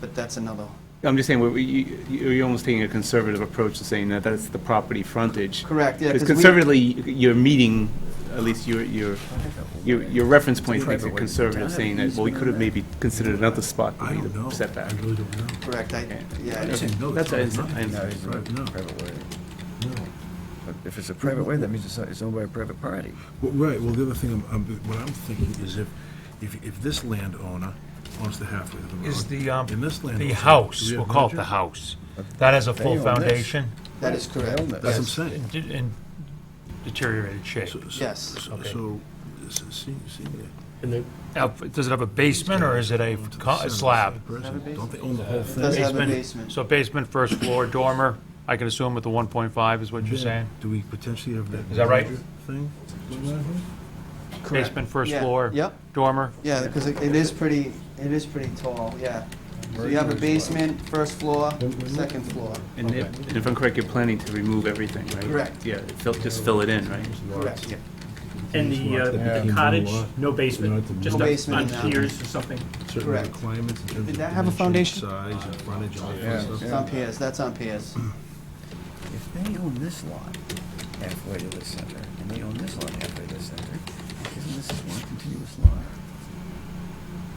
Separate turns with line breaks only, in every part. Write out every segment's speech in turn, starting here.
but that's another,
I'm just saying, we- we- you- you're almost taking a conservative approach to saying that that's the property frontage.
Correct, yeah, 'cause
Because
we-
conservatively, you're meeting, at least your, your, your your reference point makes it conservative, saying that, well, we could have maybe considered another spot to
I
be
don't know.
the setback.
I really don't know.
correct, I, yeah.
I didn't know
That's
that.
what I said, I
No,
understand.
it's not. No,
private way.
no.
But if it's a private way, that means it's not- it's owned by a private party.
Well, Right, well, the other thing, I'm- I'm- what I'm thinking is if, if, if this landowner owns the halfway of the road.
Is the, um,
and this landowner-
the house,
Do we
we'll
have
call it the
merger?
house. That has a
They own
full
this.
foundation
That is correct.
They own this.
That's
Yes.
what I'm saying.
and de- and deteriorated shape.
So- so-
Yes.
so-
Okay.
So, this is se- senior.
Now, does it have a basement, or Oh, is it a
Onto the
co-
center,
a slab?
same person. Don't they own the whole
It does
thing?
have a
Basement.
basement.
So basement, first floor, dormer, I can assume with the 1.5 is what you're saying?
Do we potentially have that?
Is that right?
merger Thing?
Correct.
Basement, first
Yeah.
floor?
Yep,
Dormer?
yeah, because it it is pretty, it is pretty tall, yeah. So you have a basement, first floor, second floor,
And if, and if I'm correct, you're planning to remove everything, right?
Correct.
Yeah, fill- just fill it in, right?
correct.
Yeah.
And the uh, the cottage, no basement, just
No
up
basement
on
now.
piers or something.
Certain
Correct.
requirements in terms of.
Did that have a
dimensions,
foundation?
Size and frontage and all that
Yeah,
kind of
It's
stuff.
on piers, that's on piers.
If they own this lot halfway to the center, and they own this lot halfway to the center, isn't this one continuous lot?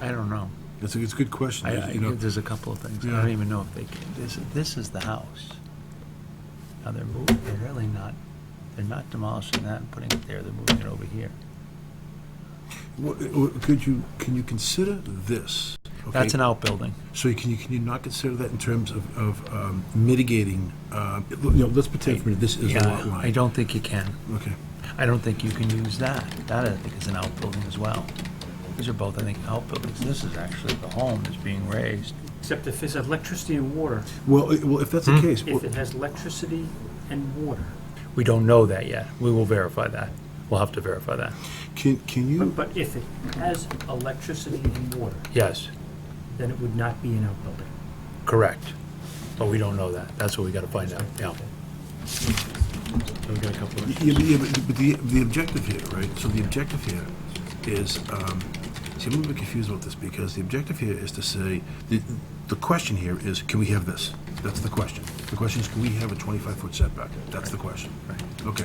I don't know.
It's a, it's a good question,
I-
you know.
I- There's a couple of things. I
Yeah.
don't even know if they can, this, this is the house. Now, they're moving, they're really not, they're not demolishing that and putting it there, they're moving it over here.
What- what- Could you, can you consider this?
That's
okay?
an outbuilding.
So you can, you can you not consider that in terms of, of um, mitigating, um, you know, let's pretend for a minute this is a lot line.
I don't think you can.
Okay.
I don't think you can use that. That, I think, is an outbuilding as well. These are both, I think, outbuildings. This is actually the home that's being raised.
Except if it's electricity and water,
Well, i- well, if that's
Hmm?
the case, well,
if it has electricity and water.
We don't know that yet. We will verify that. We'll have to verify that.
can, can you,
But but if it has electricity and water,
Yes,
then it would not be an outbuilding.
correct. But we don't know that. That's what we gotta find out, yeah. So we got a couple of-
yeah, but- yeah, but but the, the objective here, right? So the objective here is, um, see, I'm a little bit confused about this because the objective here is to say, the, the question here is, can we have this? That's the question. The question is, can we have a 25-foot setback? That's the question. Okay.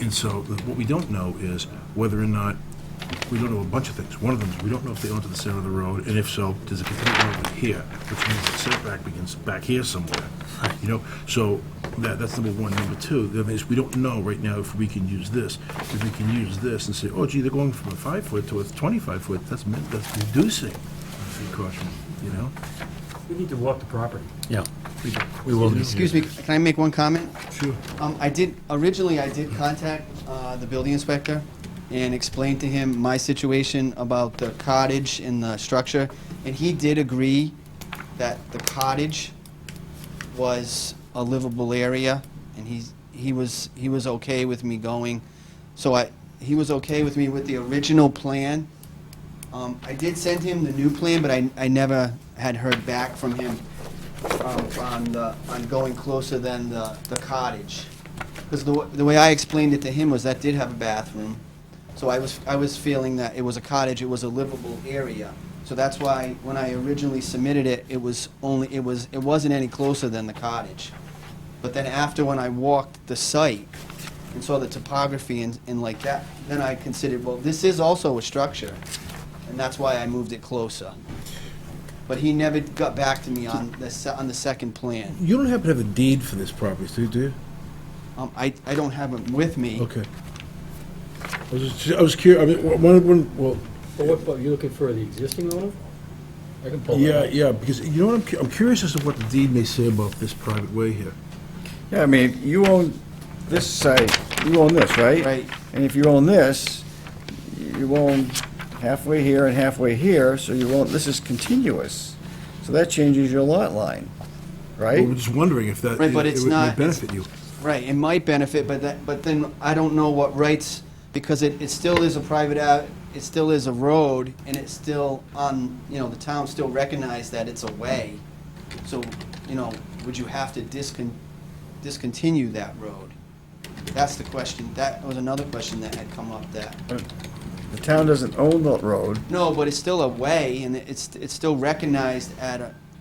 And so the- what we don't know is whether or not, we don't know a bunch of things. One of them is, we don't know if they own to the center of the road, and if so, does it continue over here? Which means the setback begins back here somewhere, you know? So that, that's number one. Number two, the other is, we don't know right now if we can use this. If we can use this and say, oh gee, they're going from a five-foot to a 25-foot, that's, min- that's reducing the encroachment, you know?
We need to walk the property.
Yeah, we- we will.
Excuse me, can I make one comment?
Sure.
Um, I did, originally I did contact, uh, the building inspector and explained to him my situation about the cottage and the structure, and he did agree that the cottage was a livable area, and he's, he was, he was okay with me going. So I, he was okay with me with the original plan. Um, I did send him the new plan, but I, I never had heard back from him um, on the, on going closer than the, the cottage. Because the, wa- the way I explained it to him was that did have a bathroom. So I was, I was feeling that it was a cottage, it was a livable area. So that's why, when I originally submitted it, it was only, it was, it wasn't any closer than the cottage. But then after, when I walked the site and saw the topography and, and like that, then I considered, well, this is also a structure. And that's why I moved it closer. But he never got back to me on the, se- on the second plan.
You don't happen to have a deed for this property, do you, do you?
Um, I, I don't have him with me.
Okay. I was just, I was curious, I mean, wh- one, one, well,
Well, what, are you looking for the existing owner? I can pull
yeah,
that up.
yeah, because you know what, I'm, cu- I'm curious as to what the deed may say about this private way here.
Yeah, I mean, you own this side, you own this, right?
Right.
And if you own this, you own halfway here and halfway here, so you own, this is continuous. So that changes your lot line,
I
right?
was just wondering if that,
Right,
it
but it's
would may
not-
benefit you.
Right, it might benefit, but that, but then I don't know what rights, because it, it still is a private, a- it still is a road, and it's still on, you know, the town still recognized that it's a way. So, you know, would you have to discon, discontinue that road? That's the question, that was another question that had come up that,
The town doesn't own the road,
no, but it's still a way, and it's, it's still recognized at a,